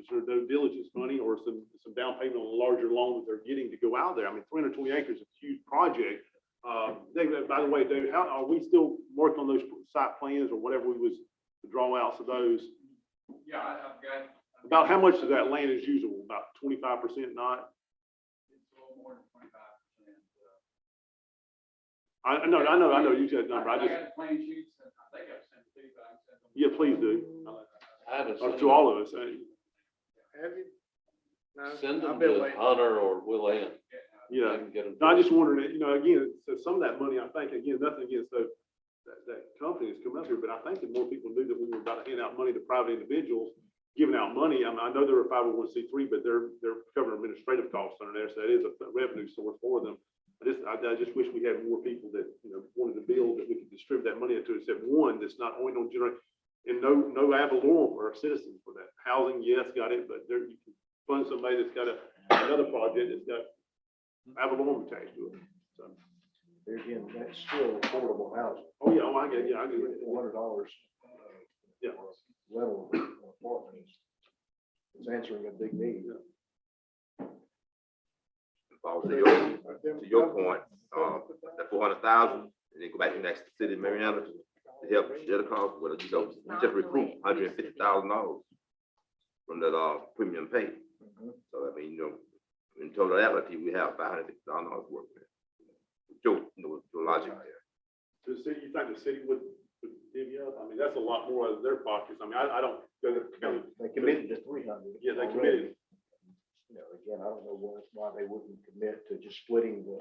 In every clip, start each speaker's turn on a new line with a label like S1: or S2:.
S1: is there no diligence money or some, some down payment on a larger loan that they're getting to go out there? I mean, three hundred twenty acres is a huge project. Uh, David, by the way, David, how, are we still working on those site plans or whatever we was, the drawouts of those?
S2: Yeah, I, I've got. I've
S1: About how
S2: got-
S1: much of that land is usable? About twenty-five percent not?
S2: It's a little more than twenty-five percent. uh.
S1: I, I know, I know, I know, you said number, I just,
S2: I got plan sheets, and I think I've sent two, but I can send them.
S1: yeah, please do,
S3: I haven't
S1: Or
S3: seen
S1: to all of us. eh?
S4: Have you? No,
S3: them. Send
S4: I've
S3: them
S4: been
S3: to
S4: waiting.
S3: Hunter or Will Ann.
S1: Yeah.
S3: They can get them.
S1: No, I just wondering, that, you know, again, so some of that money, I think, again, nothing against those, that, that company that's coming up here, but I think that more people knew that we were about to hand out money to private individuals, giving out money. I mean, I know they're a five oh one C three, but they're, they're covering administrative costs under there, so that is a revenue source for them. I just, I, I just wish we had more people that, you know, wanted to build, that we could distribute that money to, except one that's not only gonna generate, and no, no ad valorem for our citizens for that. Housing, yes, got it, but there, you can fund somebody that's got a, another project that's got ad valorem attached to it. So,
S5: There again, that's still affordable housing.
S1: Oh, yeah, oh, I get, yeah, I get it.
S5: Four hundred dollars. uh,
S1: Yeah.
S5: Level of apartment is, is answering a big need.
S6: Bob, to your, to your point, um, that four hundred thousand, and then go back to the next city, of Marietta, to help share the cost, well, you know, you just recruit hundred and fifty thousand dollars from that, uh, premium pay. So, I mean, you know, in totality, we have five hundred fifty thousand dollars worth of it. Joe, you know, your logic there.
S1: The city, you think the city would, would give you up? I mean, that's a lot more out of their pockets. I mean, I, I don't, go to the county.
S5: They committed to three hundred.
S1: yeah, they committed.
S5: You know, again, I don't know why, why they wouldn't commit to just splitting the,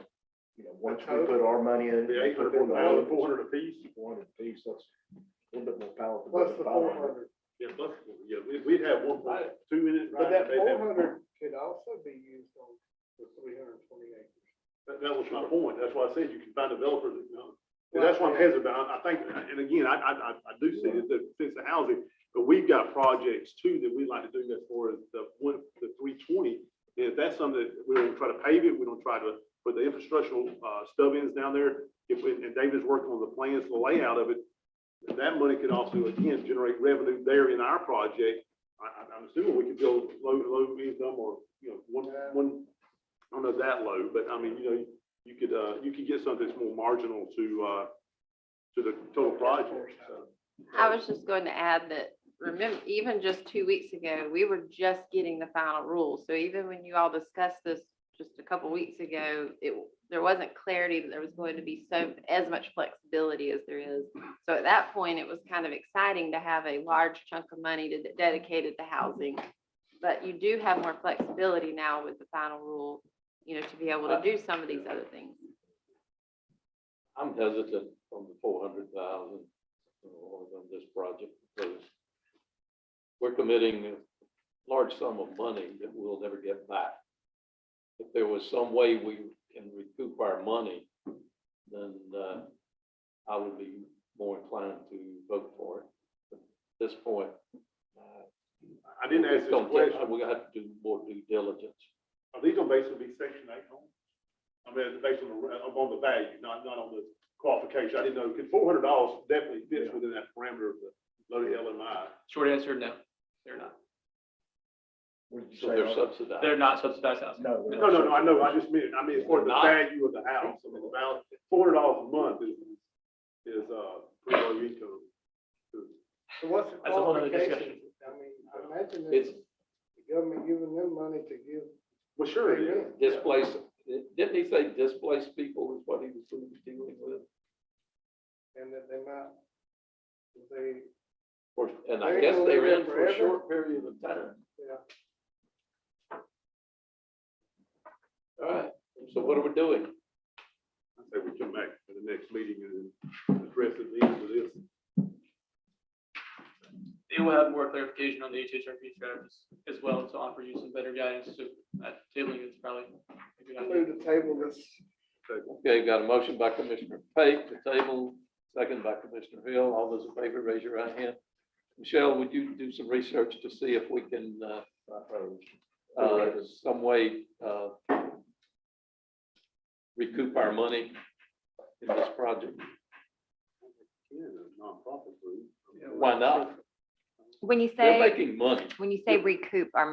S5: you know, once we
S4: total?
S5: put our money in.
S1: The
S5: they
S1: eight
S5: put
S1: hundred,
S5: in the
S1: four hundred apiece.
S5: Four hundred piece, that's a little bit more powerful.
S4: Plus
S5: than
S4: the
S5: five
S4: four hundred,
S1: Yeah, plus, yeah, we, we'd have one point two minutes.
S4: but that four hundred could also be used on the three hundred and twenty acres.
S1: That, that was my point. That's why I said you can find developers that, you know. And that's what I'm hesitant about. I think, and again, I, I, I, I do see that, that since the housing, but we've got projects too that we'd like to do as far as the one, the three twenty. And if that's something that we don't try to pave it, we don't try to put the infrastructural, uh, stub ins down there. If, we- and David's working on the plans, the layout of it, that money could also again generate revenue there in our project. I, I- I'm assuming we could go low, low income or, you know, one, one, I don't know that low, but I mean, you know, you could, uh, you could get something that's more marginal to, uh, to the total project, so.
S7: I was just going to add that, remember, even just two weeks ago, we were just getting the final rule. So even when you all discussed this just a couple weeks ago, it, there wasn't clarity that there was going to be so, as much flexibility as there is. So at that point, it was kind of exciting to have a large chunk of money to- dedicated to housing. But you do have more flexibility now with the final rule, you know, to be able to do some of these other things.
S3: I'm hesitant on the four hundred thousand on this project because we're committing a large sum of money that we'll never get back. If there was some way we can recoup our money, then uh, I would be more inclined to vote for it. But At this point, uh,
S1: I didn't ask
S3: it's
S1: this
S3: gonna take-
S1: question.
S3: We're gonna have to do more due diligence.
S1: Are these gonna basically be section eight homes? I mean, it's based on the, uh, on the value, not, not on the qualification. I didn't know, because four hundred dollars definitely fits within that parameter of the loaded LMI.
S2: Short answer, no, they're not.
S5: What'd you
S3: So
S5: say,
S3: they're
S5: Art?
S3: subsidized.
S2: They're not subsidized housing.
S5: No. they're
S1: No,
S5: not
S1: no, no, I know, I just meant, I mean, for the
S3: Not-
S1: value of the house, I mean, the value, four hundred dollars a month is, is, uh, pretty low income.
S4: So what's the
S2: That's a whole other
S4: qualification? I mean, I imagine it's
S3: It's
S4: the government giving them money to give.
S1: Well, sure,
S4: free
S1: yeah.
S4: rent.
S3: displaced, didn't he say displaced people is what he was dealing with?
S4: And that they might, if they,
S3: Or- And
S4: They're
S3: I guess
S4: gonna
S3: they
S4: live
S3: were
S4: there
S3: in for a
S4: forever.
S3: short period of time.
S4: yeah.
S3: All right, so what are we doing?
S1: I say we come back to the next meeting and address it at the end of this.
S2: They will have more clarification on the HHRP strategies as well to offer you some better guidance, so that tabling is probably a good
S4: I
S2: idea.
S4: move to table this.
S3: Okay, got a motion by Commissioner Pate to table, second by Commissioner Hill. All those in favor, raise your right hand. Michelle, would you do some research to see if we can, uh, uh, some way, uh, recoup our money in this project?
S1: Yeah, the nonprofit group.
S3: Why not?
S7: When you
S3: They're
S7: say,
S3: making money.
S7: when you say recoup our